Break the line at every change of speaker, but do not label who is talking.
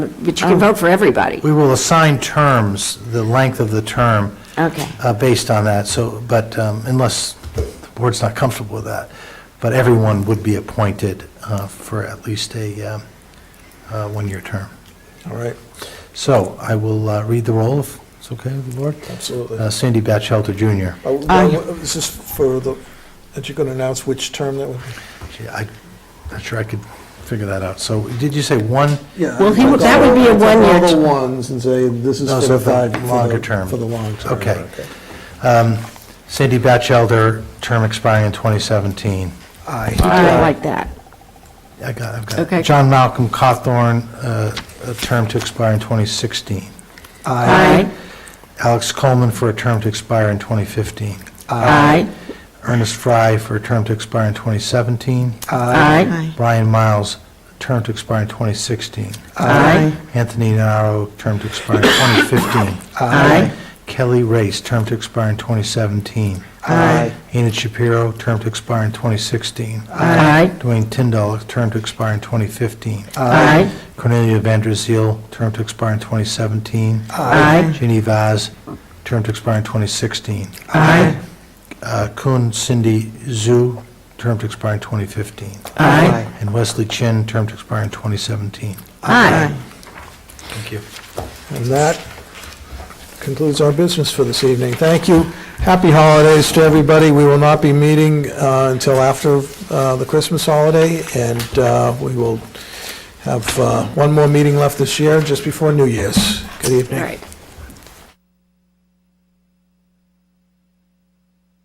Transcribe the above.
But you can vote for everybody.
We will assign terms, the length of the term,
Okay.
uh, based on that, so, but um, unless the board's not comfortable with that, but everyone would be appointed uh, for at least a um, uh, one-year term.
All right,
So I will uh, read the roll, if it's okay with the board.
absolutely.
Uh, Sandy Batchelder Jr.
Oh,
Aye.
well, Is this for the, that you're going to announce which term that would be?
Gee, I'm not sure I could figure that out. So did you say one?
Well, he would- that would be a one-year
All the
term.
ones and say, this is
No,
for
so
the
for
five. for the-
longer term.
For the long term.
Okay. Sandy Batchelder, term expiring in 2017.
Aye.
I like that.
I got, it, I've got. it.
Okay.
John Malcolm Cawthorn, uh, a term to expire in 2016.
Aye.
Alex Coleman for a term to expire in 2015.
Aye.
Ernest Fry for a term to expire in 2017.
Aye.
Brian Miles, term to expire in 2016.
Aye.
Anthony Naro, term to expire in 2015.
Aye.
Kelly Race, term to expire in 2017.
Aye.
Enid Shapiro, term to expire in 2016.
Aye.
Dwayne Tyndall, term to expire in 2015.
Aye.
Cornelia Van Der Zeel, term to expire in 2017.
Aye.
Ginny Vaz, term to expire in 2016.
Aye.
Uh, Kun Cindy Zhu, term to expire in 2015.
Aye.
And Wesley Chin, term to expire in 2017.
Aye.
Thank you.
And that concludes our business for this evening. Thank you. Happy holidays to everybody. We will not be meeting uh, until after uh, the Christmas holiday, and uh, we will have uh, one more meeting left this year, just before New Year's. Good
All
evening.
right.